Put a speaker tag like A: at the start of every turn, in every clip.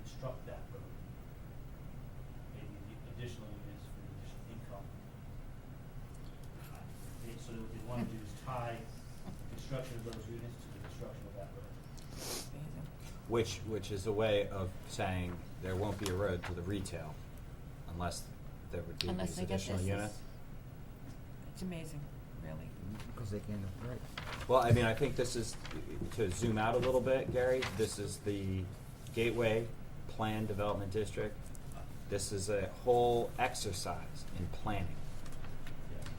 A: construct that road. Maybe the additional units for additional income. Uh, they- So what they wanna do is tie the construction of those units to the construction of that road.
B: Which, which is a way of saying there won't be a road to the retail unless there would be
C: Unless
B: these
C: they get
B: additional
C: this.
B: units.
C: is- It's amazing, really.
D: Because they can't afford it.
B: Well, I mean, I think this is, to zoom out a little bit, Gary, this is the Gateway Plan Development District. This is a whole exercise in planning.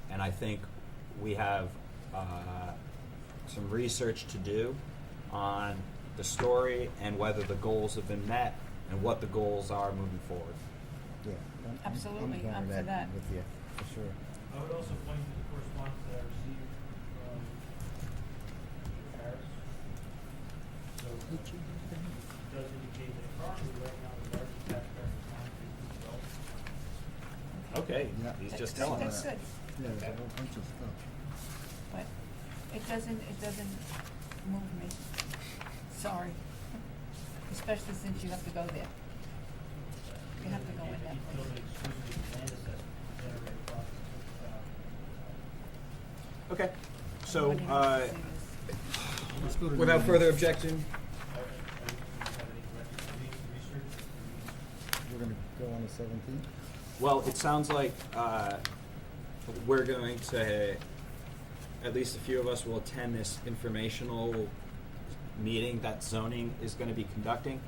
B: And I think we have uh, some research to do on the story and whether the goals have been met and what the goals are moving forward.
D: Yeah. I'm- I'm-
C: Absolutely,
D: down
C: I'm for that.
D: With you, for sure.
A: I would also point to the correspondence that I received from Paris. So uh, it does indicate that currently right now the largest taxpayer is not being developed.
B: Okay,
D: Yeah.
B: he's
C: That's-
B: just telling
C: That's
B: us.
C: good,
D: Yeah, there's a whole bunch of stuff.
C: but it doesn't, it doesn't move me. Sorry. Especially since you have to go there. You have to go in that
A: It
C: place.
A: exclusively land assessment to generate approximately $2,000.
B: Okay, so
C: Nobody
B: uh,
C: wants to see this.
D: Let's go to
B: without
D: number-
B: further objection,
A: Are- are- do you have any recommendations, research?
D: We're gonna go on the seventeenth?
B: Well, it sounds like uh, we're going to, at least a few of us will attend this informational meeting that zoning is going to be conducting.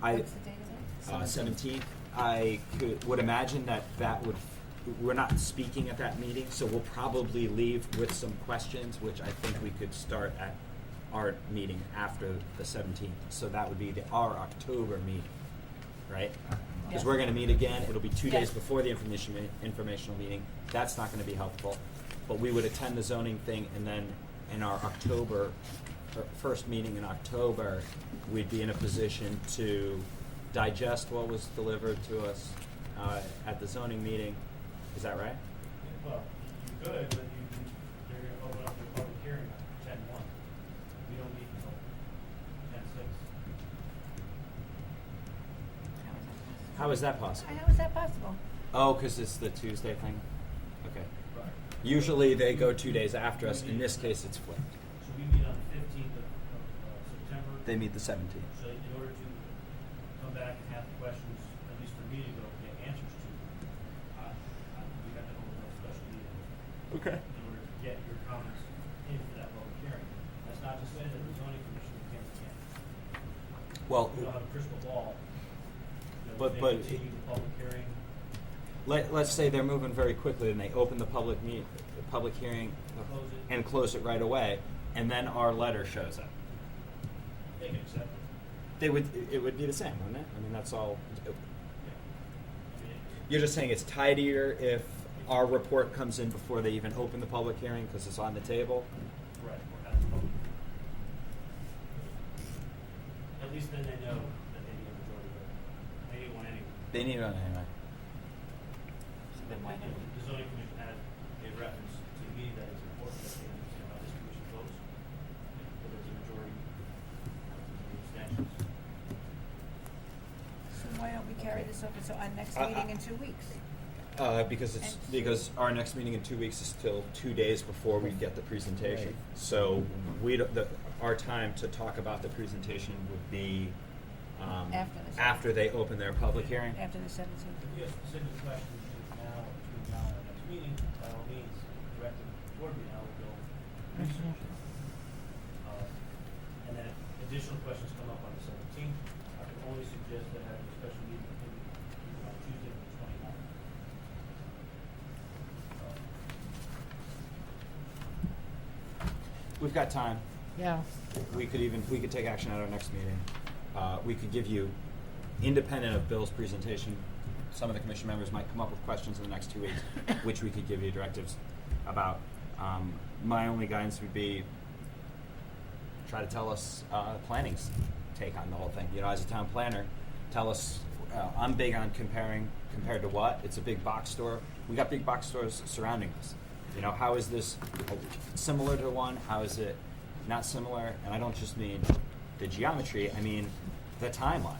B: I,
C: What's the date of that?
B: uh,
D: Seventeenth.
B: seventeenth, I could, would imagine that that would, we're not speaking at that meeting, so we'll probably leave with some questions, which I think we could start at our meeting after the seventeenth. So that would be the, our October meeting, right? Because we're
C: Yeah.
B: gonna meet again, it'll be two days
C: Yeah.
B: before the information, me- informational meeting, that's not gonna be helpful. But we would attend the zoning thing, and then in our October, uh, first meeting in October, we'd be in a position to digest what was delivered to us uh, at the zoning meeting, is that right?
A: Well, you could, but you, you- they're gonna open up their public hearing on ten one. We don't meet until ten six.
B: How is that possible?
C: How is that possible?
B: Oh, because it's the Tuesday thing? Okay.
A: Right.
B: Usually, they go two days after us, in this case, it's flipped.
A: So we meet on the fifteenth of, of uh, September.
B: They meet the seventeenth.
A: So in order to come back and have the questions, at least for me to go get answers to, I, I, we have to hold a special meeting
B: Okay.
A: in order to get your comments in for that public hearing. That's not to say that the zoning commission can't, can't.
B: Well,
A: We don't have a crystal ball. You know, they
B: But- but-
A: Continue the public hearing.
B: Let, let's say they're moving very quickly and they open the public meet, the public hearing
A: Close it.
B: and close it right away, and then our letter shows up.
A: They can accept it.
B: They would, it would be the same, wouldn't it? I mean, that's all.
A: Yeah. I mean, it-
B: You're just saying it's tidier if our report comes in before they even open the public hearing because it's on the table?
A: Right, we're at the public. At least then they know that they need a majority vote. They didn't want anyone.
B: They need it on anyway.
C: So then why don't we-
A: The zoning commission had a reference to me that it's important that they understand how this commission votes, whether it's a majority, abstentions.
C: So why don't we carry this over to our next
B: I- I-
C: meeting in two weeks?
B: Uh, because it's, because our next meeting in two weeks is till two days before we get the presentation.
D: Right.
B: So we, don't- the, our time to talk about the presentation would be, um,
C: After this.
B: after they open their public hearing?
C: After the seventeenth?
A: If you have specific questions between now, between now and the next meeting, by all means, direct them toward me, and I will go research it. Uh, And then if additional questions come up on the seventeenth, I can only suggest that having a special meeting in, on Tuesday, the twenty-ninth. Uh,
B: We've got time.
E: Yeah.
B: We could even, we could take action at our next meeting. Uh, we could give you, independent of Bill's presentation, some of the commission members might come up with questions in the next two weeks, which we could give you directives about. Um, my only guidance would be try to tell us uh, planning's take on the whole thing. You know, as a town planner, tell us. Uh, I'm big on comparing compared to what. It's a big box store. We got big box stores surrounding us. You know, how is this similar to one? How is it not similar? And I don't just mean the geometry. I mean the timeline.